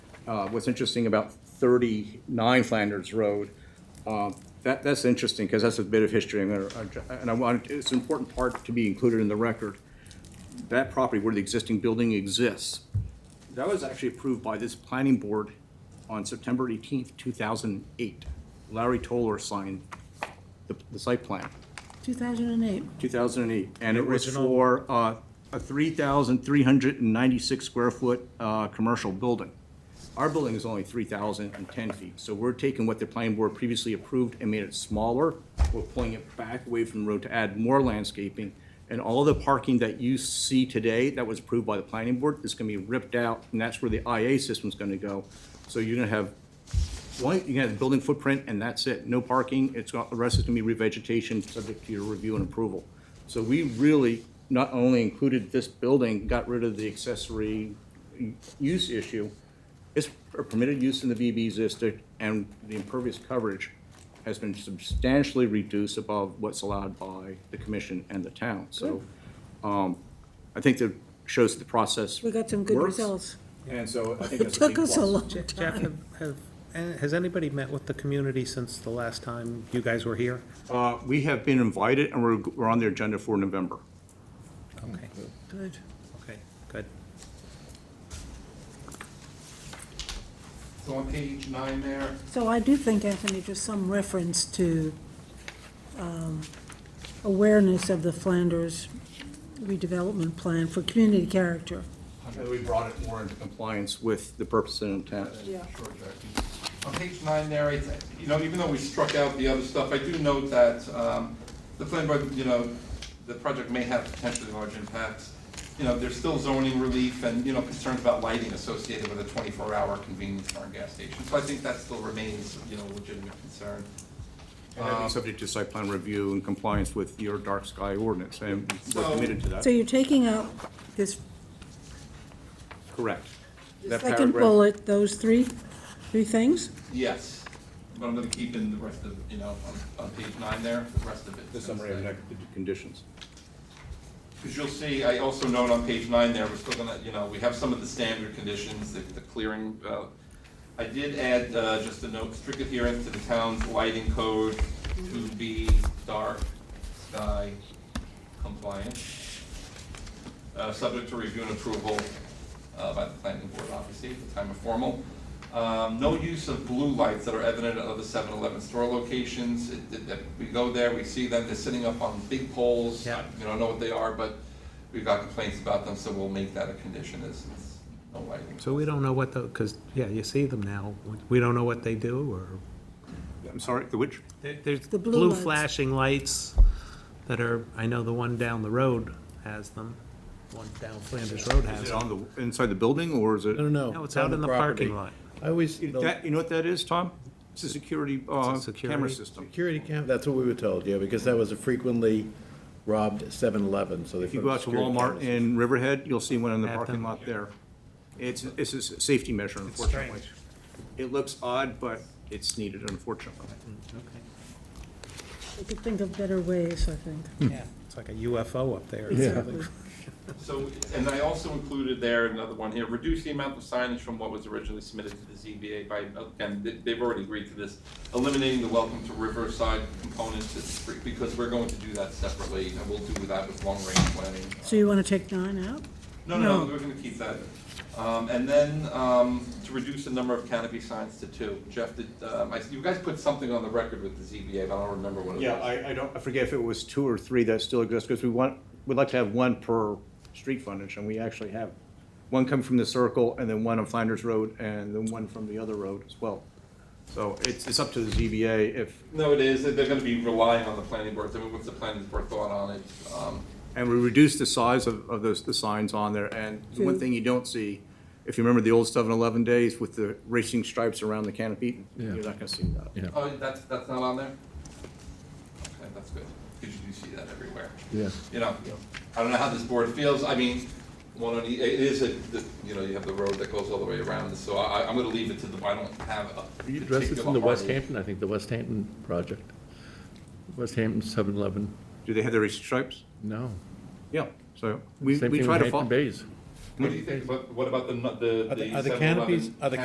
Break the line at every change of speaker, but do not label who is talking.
uh, what's interesting about 39 Flanders Road, uh, that, that's interesting, because that's a bit of history, I'm gonna- and I want, it's an important part to be included in the record. That property where the existing building exists, that was actually approved by this planning board on September 18th, 2008. Larry Toller signed the, the site plan,
2008.
2008, and it was
Original.
for uh, a 3,396 square foot uh, commercial building. Our building is only 3,010 feet, so we're taking what the planning board previously approved and made it smaller. We're pulling it back away from the road to add more landscaping. And all the parking that you see today that was approved by the planning board is going to be ripped out, and that's where the IA system's going to go. So you're going to have well, you got the building footprint and that's it, no parking, it's, got- the rest is gonna be revegetation, subject to your review and approval. So we really not only included this building, got rid of the accessory use issue, it's a permitted use in the BB district, and the impervious coverage has been substantially reduced above what's allowed by the commission and the town, so, um, I think that shows the process.
We got some good
works,
results.
And so I think
It
that's a big
took us a
plus.
long
Jeff,
time.
have, have, eh, has anybody met with the community since the last time you guys were here?
Uh, we have been invited and we're, we're on the agenda for November.
Okay,
Good.
okay, good.
So on page nine there,
So I do think, Anthony, just some reference to um, awareness of the Flanders redevelopment plan for community character.
We brought it more into compliance with the purpose and intent.
Yeah.
sure, Jackie. On page nine there, it's, you know, even though we struck out the other stuff, I do note that, um, the plan, board, you know, the project may have potentially large impacts. You know, there's still zoning relief and, you know, concerns about lighting associated with a twenty-four hour convenience store and gas station. So I think that still remains, you know, a legitimate concern.
And that'd be Uh, subject to site plan review and compliance with your dark sky ordinance, and we're committed to
So
that.
you're taking out this
Correct. That
second
paragraph-
bullet, those three, three things?
Yes, but I'm gonna keep in the rest of, you know, on, on page nine there, the rest of it.
The summary of negative conditions.
Because you'll see, I also note on page nine there, we're still gonna, you know, we have some of the standard conditions, the, the clearing, uh, I did add, uh, just a note, strict adherence to the town's lighting code to be dark sky compliant. Uh, subject to review and approval, uh, by the planning board, obviously, at the time of formal. Um, no use of blue lights that are evident at other 7-Eleven store locations, It- it- that, we go there, we see them, they're sitting up on big poles.
Yeah.
We don't know what they are, but we've got complaints about them, so we'll make that a condition, is, is no lighting.
So we don't know what the, because, yeah, you see them now, we don't know what they do, or?
I'm sorry, the which?
There- There's
The blue
blue
lights.
flashing lights that are, I know the one down the road has them, one down Flanders Road has
Is it
them.
on the, inside the building, or is it?
No, no, no.
No, it's
on
out in the parking
property.
lot.
I always, the
That, you know what that is, Tom? It's a security, uh,
It's a
camera
security-
system.
security cam, that's what we were told, yeah, because that was a frequently robbed 7-Eleven, so they.
If you go out to Walmart in Riverhead, you'll see one in the parking lot there. It's, it's a safety measure, unfortunately. It looks odd, but it's needed, unfortunately.
We could think of better ways, I think.
Yeah, it's like a UFO up there.
Exactly.
So, and I also included there another one here, reduce the amount of signage from what was originally submitted to the ZBA by, and they- they've already agreed to this, eliminating the welcome to Riverside component to the street, because we're going to do that separately, and we'll do that with long-range planning.
So you want to take nine out?
No, no,
No.
no, we're gonna keep that. Um, and then, um, to reduce the number of canopy signs to two. Jeff, did, um, I, you guys put something on the record with the ZBA, but I don't remember what it was.
Yeah, I, I don't, I forget if it was two or three that still exist, because we want, we'd like to have one per street frontage, and we actually have one coming from the circle, and then one on Flanders Road, and then one from the other road as well. So it's, it's up to the ZBA if,
No, it is, they're gonna be relying on the planning board, I mean, what's the planning board thought on it? Um,
and we reduce the size of, of those, the signs on there, and the one
Two.
thing you don't see, if you remember the old 7-Eleven days with the racing stripes around the canopy, you're not gonna see that.
Yeah.
Oh, that's, that's not on there? Okay, that's good, because you do see that everywhere.
Yeah.
You know, I don't know how this board feels, I mean, one of the, it is a, the- you know, you have the road that goes all the way around, so I, I'm gonna leave it to the, I don't have a
You addressed this in
particular
the West
hard-
Hampton, I think, the West Hampton project. West Hampton 7-Eleven,
Do they have the racing stripes?
no.
Yeah, so we,
Same
we
thing
try to
with Hampton
follow.
Bays.
What do you think, what, what about the, nu- the,
Are
the
the- are the
7-Eleven
canopies- are the